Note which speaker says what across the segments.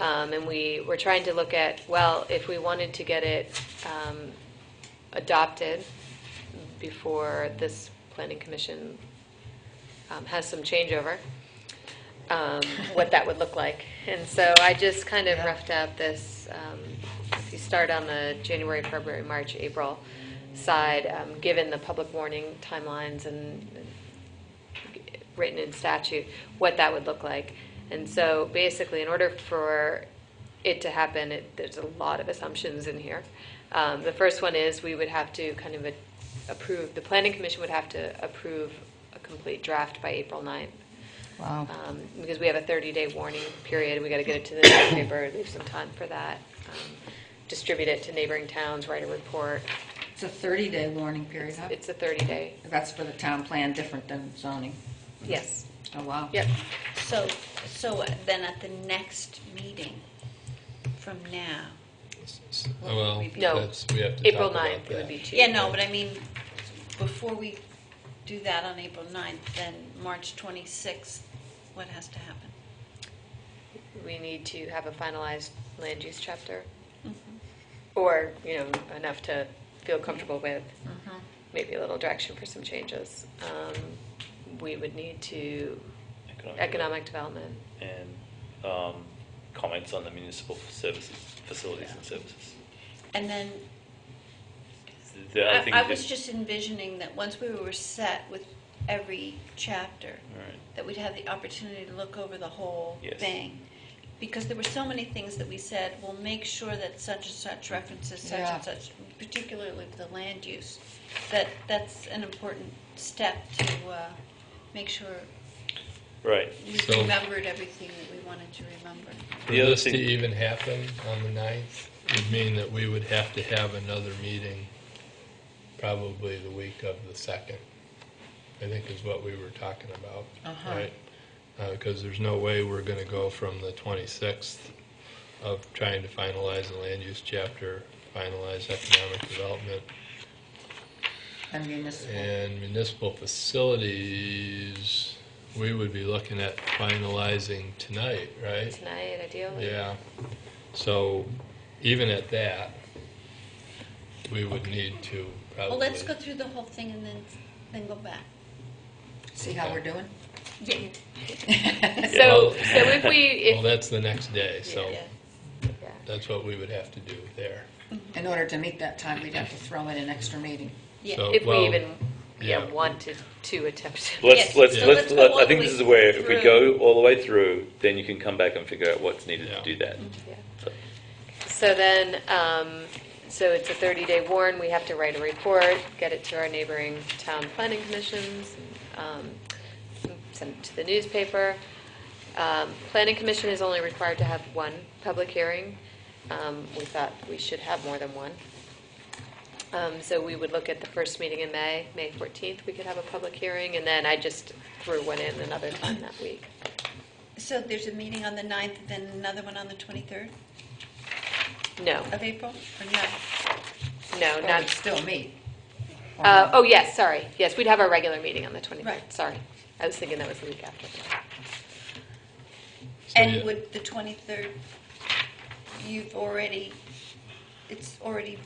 Speaker 1: Um, And we were trying to look at, well, if we wanted to get it um, adopted before this planning commission um, has some changeover, um, what that would look like. And so I just kind of roughed out this, um, if you start on the January, February, March, April side, um, given the public warning timelines and written in statute, what that would look like. And so basically, in order for it to happen, it- there's a lot of assumptions in here. Um, The first one is we would have to kind of a- approve, the planning commission would have to approve a complete draft by April 9th.
Speaker 2: Wow.
Speaker 1: Um, Because we have a 30-day warning period, we got to get it to the newspaper, leave some time for that, um, distribute it to neighboring towns, write a report.
Speaker 2: It's a 30-day warning period, huh?
Speaker 1: It's a 30-day,
Speaker 2: That's for the town plan, different than zoning.
Speaker 1: yes,
Speaker 2: Oh, wow.
Speaker 1: yep.
Speaker 3: So, so then at the next meeting from now,
Speaker 4: S- oh, Well,
Speaker 1: No.
Speaker 4: that's, we have to
Speaker 1: April
Speaker 4: talk about
Speaker 1: 9th, it would
Speaker 4: that.
Speaker 1: be two.
Speaker 3: yeah, no, but I mean, before we do that on April 9th, then March 26th, what has to happen?
Speaker 1: we need to have a finalized land use chapter,
Speaker 3: Mm-hmm.
Speaker 1: or, you know, enough to feel comfortable with, maybe a little direction for some changes. Um, We would need to,
Speaker 5: Economic
Speaker 1: economic development,
Speaker 5: and um, comments on the municipal services, facilities and services.
Speaker 3: And then,
Speaker 5: The- I think
Speaker 3: I I
Speaker 5: that-
Speaker 3: was just envisioning that once we were set with every chapter,
Speaker 5: All right.
Speaker 3: that we'd have the opportunity to look over the whole
Speaker 5: Yes.
Speaker 3: thing. Because there were so many things that we said, we'll make sure that such and such references such
Speaker 2: Yeah.
Speaker 3: and such, particularly for the land use, that that's an important step to uh, make sure
Speaker 5: Right.
Speaker 3: we
Speaker 4: So-
Speaker 3: remembered everything that we wanted to remember.
Speaker 4: For
Speaker 5: The other
Speaker 4: this to
Speaker 5: thing-
Speaker 4: even happen on the 9th would mean that we would have to have another meeting probably the week of the 2nd, I think is what we were talking about,
Speaker 2: Uh-huh.
Speaker 4: right? Because there's no way we're going to go from the 26th of trying to finalize the land use chapter, finalize economic development,
Speaker 2: And municipal.
Speaker 4: and municipal facilities, we would be looking at finalizing tonight, right?
Speaker 1: tonight ideally.
Speaker 4: Yeah, so even at that, we would need to probably.
Speaker 3: Well, let's go through the whole thing and then, then go back.
Speaker 2: See how we're doing?
Speaker 3: Yeah.
Speaker 1: So, so if we,
Speaker 4: Well,
Speaker 1: if,
Speaker 4: that's the next day, so
Speaker 3: Yeah.
Speaker 1: yeah.
Speaker 4: that's what we would have to do there.
Speaker 2: In order to meet that time, we'd have to throw in an extra meeting.
Speaker 3: Yeah.
Speaker 4: So,
Speaker 1: if we
Speaker 4: well,
Speaker 1: even, yeah,
Speaker 4: yeah.
Speaker 1: wanted to attempt.
Speaker 5: Let's,
Speaker 3: Yes,
Speaker 5: let's,
Speaker 3: so
Speaker 5: let's,
Speaker 3: let's
Speaker 5: let-
Speaker 3: go
Speaker 5: I
Speaker 3: all
Speaker 5: think
Speaker 3: the
Speaker 5: this is
Speaker 3: way
Speaker 5: where, if we
Speaker 3: through.
Speaker 5: go all the way through, then you can come back and figure out what's needed
Speaker 4: Yeah.
Speaker 5: to do that.
Speaker 1: Yeah.
Speaker 5: So-
Speaker 1: So then, um, so it's a 30-day warn, we have to write a report, get it to our neighboring town planning commissions, um, send it to the newspaper. Um, Planning commission is only required to have one public hearing. Um, We thought we should have more than one. Um, So we would look at the first meeting in May, May 14th, we could have a public hearing, and then I just threw one in another time that week.
Speaker 3: So there's a meeting on the 9th, then another one on the 23rd
Speaker 1: No,
Speaker 3: of April, or no?
Speaker 1: no,
Speaker 2: Or
Speaker 1: not,
Speaker 2: we'd still meet.
Speaker 1: Uh,
Speaker 2: Or not.
Speaker 1: Oh, yes, sorry. Yes, we'd have our regular meeting on the 23rd,
Speaker 3: Uh-huh. Right.
Speaker 1: sorry. I was thinking that was the week after.
Speaker 4: so yeah.
Speaker 3: And would the 23rd, you've already, it's already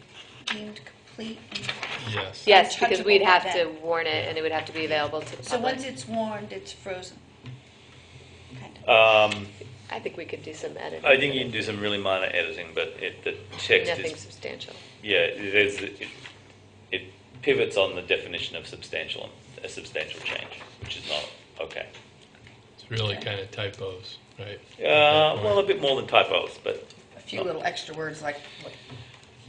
Speaker 3: deemed complete? and-
Speaker 4: Yes.
Speaker 1: Yes, because
Speaker 3: Untouchable
Speaker 1: we'd have
Speaker 3: by
Speaker 1: to
Speaker 3: then.
Speaker 1: warn it, and it would have to be available to the
Speaker 3: So once
Speaker 1: public.
Speaker 3: it's warned, it's frozen? Kind of.
Speaker 5: Um,
Speaker 1: I think we could do some editing.
Speaker 5: I think you can do some really minor editing, but it, the text
Speaker 1: Nothing
Speaker 5: is,
Speaker 1: substantial.
Speaker 5: yeah, it is, it- it pivots on the definition of substantial, a substantial change, which is not okay.
Speaker 4: It's really kind of typos, right?
Speaker 5: Uh, well, a bit more than typos, but
Speaker 2: A few little extra words like, what-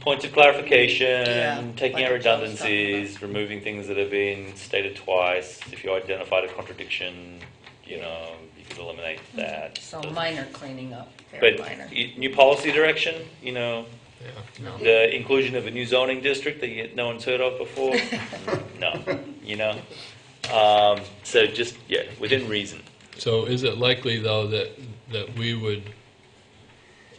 Speaker 5: points of
Speaker 2: Yeah,
Speaker 5: clarification,
Speaker 2: like
Speaker 5: taking out
Speaker 2: the job's talking about.
Speaker 5: redundancies, removing things that have been stated twice. If you identified a contradiction, you know, you could eliminate that.
Speaker 2: Mm-hmm. so minor cleaning up, very
Speaker 5: But
Speaker 2: minor.
Speaker 5: y- new policy direction, you know,
Speaker 4: Yeah, no.
Speaker 5: the inclusion of a new zoning district that yet no one's heard of before, no, you know. Um, so just, yeah, within reason.
Speaker 4: So is it likely, though, that, that we would,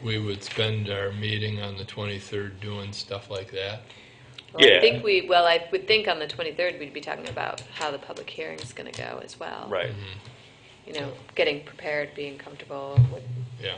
Speaker 4: we would spend our meeting on the 23rd doing stuff like that?
Speaker 1: Well, I
Speaker 5: Yeah.
Speaker 1: think we, well, I would think on the 23rd, we'd be talking about how the public hearing's going to go as well.
Speaker 5: Right.
Speaker 1: You know, getting prepared, being comfortable with
Speaker 4: Yeah.